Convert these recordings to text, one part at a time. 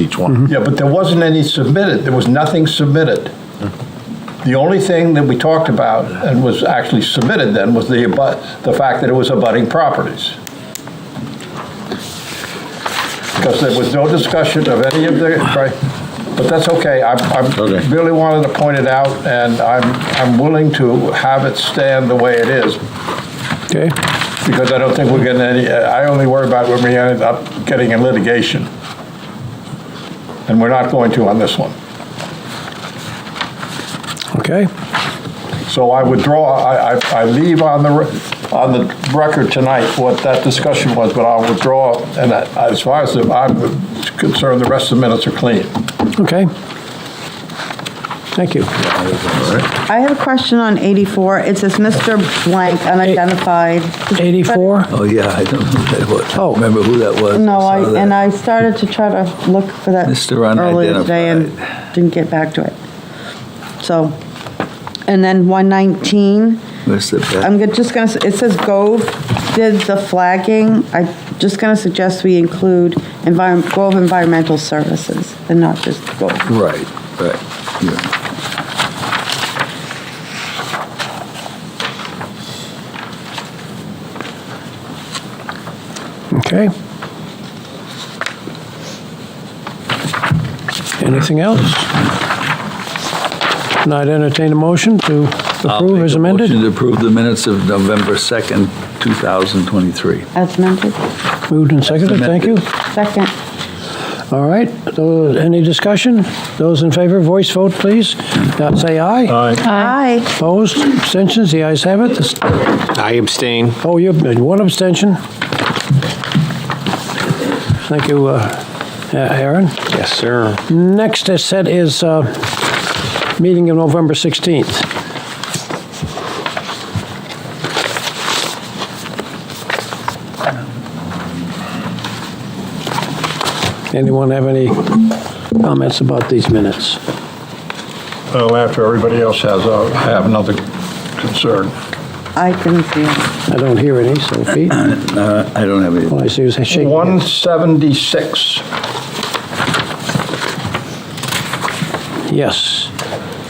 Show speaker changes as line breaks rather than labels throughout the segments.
each one.
Yeah, but there wasn't any submitted, there was nothing submitted. The only thing that we talked about and was actually submitted then was the, abut- the fact that it was abutting properties. Because there was no discussion of any of the, right, but that's okay, I, I
Okay.
really wanted to point it out, and I'm, I'm willing to have it stand the way it is,
Okay,
because I don't think we're getting any, I only worry about when we end up getting in litigation. And we're not going to on this one.
okay.
So I withdraw, I, I, I leave on the, re- on the record tonight what that discussion was, but I'll withdraw, and I- as far as I'm concerned, the rest of the minutes are clean.
Okay. Thank you.
I have a question on 84. It says Mr. Blank unidentified.
84?
Oh, yeah, I don't know who that was. I
Oh.
don't remember who that was.
No,
saw
I,
that.
and I started to try to look for that
Mr.
earlier today and didn't get back to it. So, and then 119,
Mr. Pat-
I'm go- just gonna, s- it says Gove did the flagging. I'm just gonna suggest we include environ- Gove Environmental Services and not just Gove.
Right, right. yeah.
Okay. Anything else? Not entertain a motion to
I'll
approve
make
as
a Motion
amended?
to approve the minutes of November 2nd, 2023.
As amended,
Moved and seconded, thank you.
second.
All right, Those- any discussion? Those in favor, voice vote, please. Now Say aye.
Aye.
Opposed, abstentions, the ayes have it. This-
I abstain.
Oh, you, one abstention. Thank you, uh, Aaron.
Yes, sir.
Next is set is uh, meeting of November 16th. Anyone have any comments about these minutes?
Well, after everybody else has, I have another concern.
I couldn't see it.
I don't hear any, so Pete,
Uh, I don't have any.
all I see is a shaking. hand.
176.
Yes,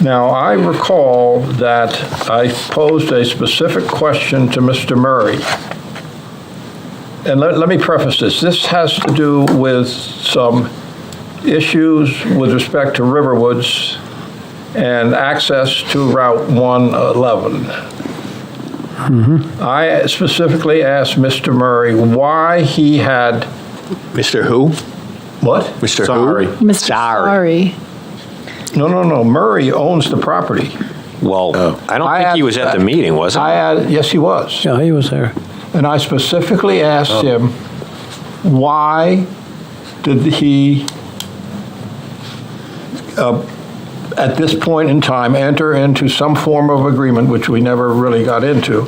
Now, I recall that I posed a specific question to Mr. Murray. And let, let me preface this. This has to do with some issues with respect to Riverwoods and access to Route 111. I specifically asked Mr. Murray why he had,
Mr. Who?
what?
Mr.
Sorry.
Who?
Mr. Sorry.
No, no, no. Murray owns the property.
Well, I don't
I
think he
ab-
was at the meeting, was he?
I had, yes, he was.
yeah, he was there.
And I specifically
Oh.
asked him, why did he, uh, at this point in time, enter into some form of agreement, which we never really got into,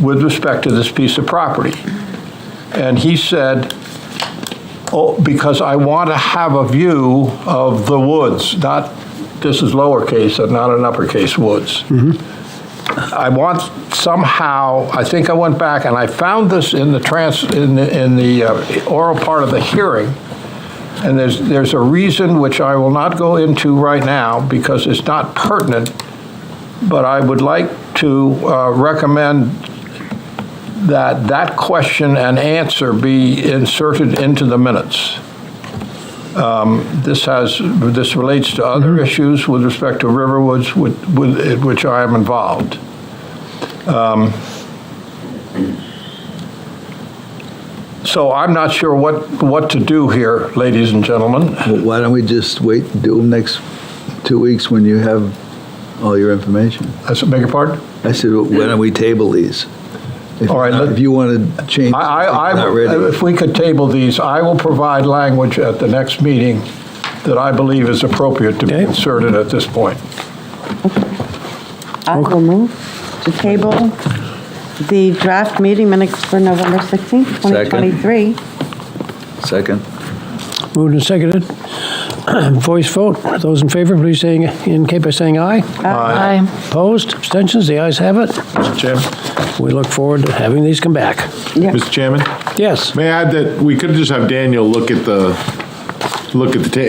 with respect to this piece of property? And he said, oh, because I want to have a view of the woods, not, this is lowercase and not an uppercase woods. I want somehow, I think I went back and I found this in the trans, in the, in the uh, oral part of the hearing. And there's, there's a reason which I will not go into right now because it's not pertinent. But I would like to uh, recommend that that question and answer be inserted into the minutes. Um, This has, this relates to other issues with respect to Riverwoods, with, with, in which I am involved. Um, So I'm not sure what, what to do here, ladies and gentlemen.
Well, Why don't we just wait, and do them next two weeks when you have all your information?
I s- beg your pardon?
I said, well, why don't we table these? If-
All right, let-
If you want to change.
I, I,
something, not
I-
ready.
if we could table these, I will provide language at the next meeting that I believe is appropriate to be
Okay.
inserted at this point.
I will move to table the draft meeting minutes for November 16th, 2023.
Second.
Moved and seconded. Voice vote, those in favor, please say, indicate by saying aye.
Aye.
Opposed, abstentions, the ayes have it.
Mr. Chairman?
We look forward to having these come back.
Mr. Chairman?
Yes.
May I add that we could just have Daniel look at the, look at the tape.